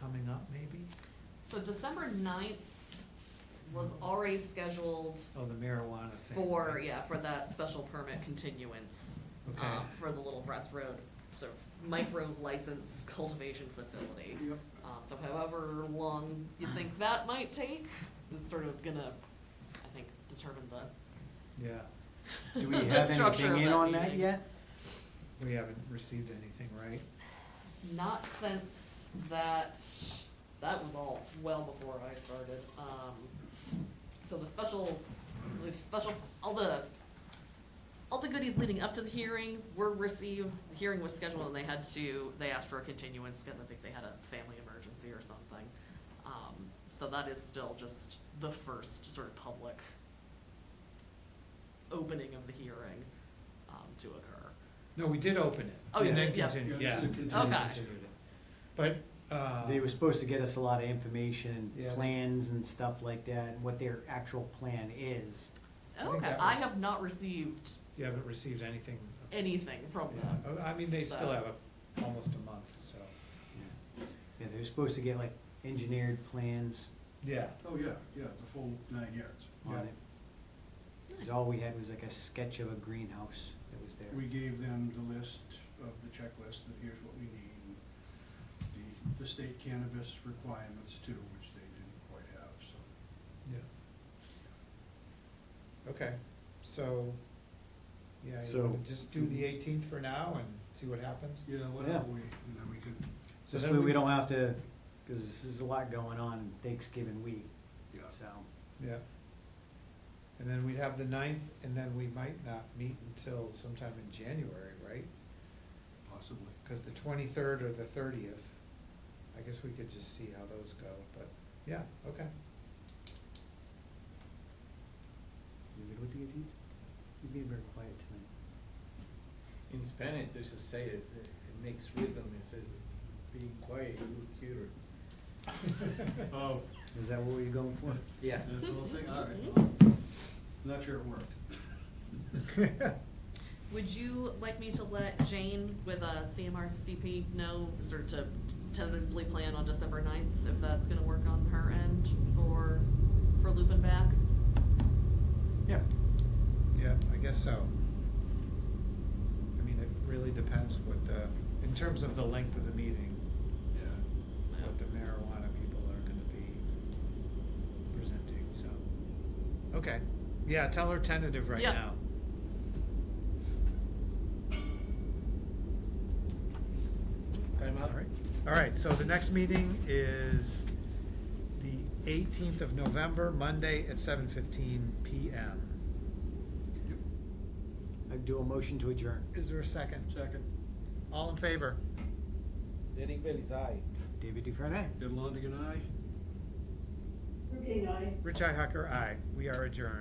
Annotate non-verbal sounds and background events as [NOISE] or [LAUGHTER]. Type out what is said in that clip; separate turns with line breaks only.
coming up, maybe?
So December ninth was already scheduled
Oh, the marijuana thing.
for,
right?
yeah, for that special permit continuance.
Okay.
uh, For the Little Breast Road, sort of micro license cultivation facility.
Yep.
Um, so however long you think that might take, is sort of gonna, I think, determine the,
Yeah,
Do we
[LAUGHS] the
have
structure of
anything in on that
meeting.
yet?
we haven't received anything, right?
Not since that, that was all well before I started, um, so the special, the special, all the, all the goodies leading up to the hearing were received, the hearing was scheduled and they had to, they asked for a continuance because I think they had a family emergency or something. Um, so that is still just the first sort of public opening of the hearing, um, to occur.
No, we did open it.
Oh, you
and then
did, yeah.
continued,
Yeah,
Yeah. and
you
then
continued. Okay.
continued it. But, uh,
They were supposed to get us a lot of information
Yeah.
and plans and stuff like that, and what their actual plan is.
I think
Okay,
that
I
was-
have not received
you haven't received anything.
anything from them.
Yeah, I mean, they still
So-
have a, almost a month, so,
Yeah, they were supposed to get like engineered plans
yeah.
Oh, yeah, yeah, the full nine yards.
on
Yeah.
it. 'Cause all we had was like a sketch of a greenhouse that was there.
We gave them the list of the checklist, that here's what we need, and the, the state cannabis requirements too, which they didn't quite have, so.
Yeah. Okay, so, yeah, you
So-
wanna just do the eighteenth for now and see what happens?
Yeah, why
Yeah.
don't we, and then we could,
So
This
then
way
we-
we don't have to, because this is a lot going on Thanksgiving week,
yeah,
so.
Yeah. And then we'd have the ninth, and then we might not meet until sometime in January, right?
possibly.
Cause the twenty-third or the thirtieth, I guess we could just see how those go, but, yeah, okay.
You good with the eighteenth? You're being very quiet tonight.
In Spanish, there's a say it, it makes rhythm, it says, being quiet, you look cuter.
[LAUGHS]
Oh,
Is that what we were going for?
Yeah.
that's all thing, all right, well, not sure it worked.
Would you like me to let Jane with uh, a CMRCP know, sort of to tentatively plan on December ninth, if that's gonna work on her end for, for looping back?
Yeah.
Yeah, I guess so. I mean, it really depends what the, in terms of the length of the meeting,
Yeah.
what the marijuana people are gonna be presenting, so. Okay, yeah, tell her tentative right
Yeah.
now.
Time out.
Alright, alright, so the next meeting is the eighteenth of November, Monday at seven fifteen PM.
I do a motion to adjourn.
Is there a second?
Second,
All in favor?
Derek Bell is aye.
David Dufresne?
did Longigan, aye?
Routine, aye.
Rich Ihacker, aye. We are adjourned.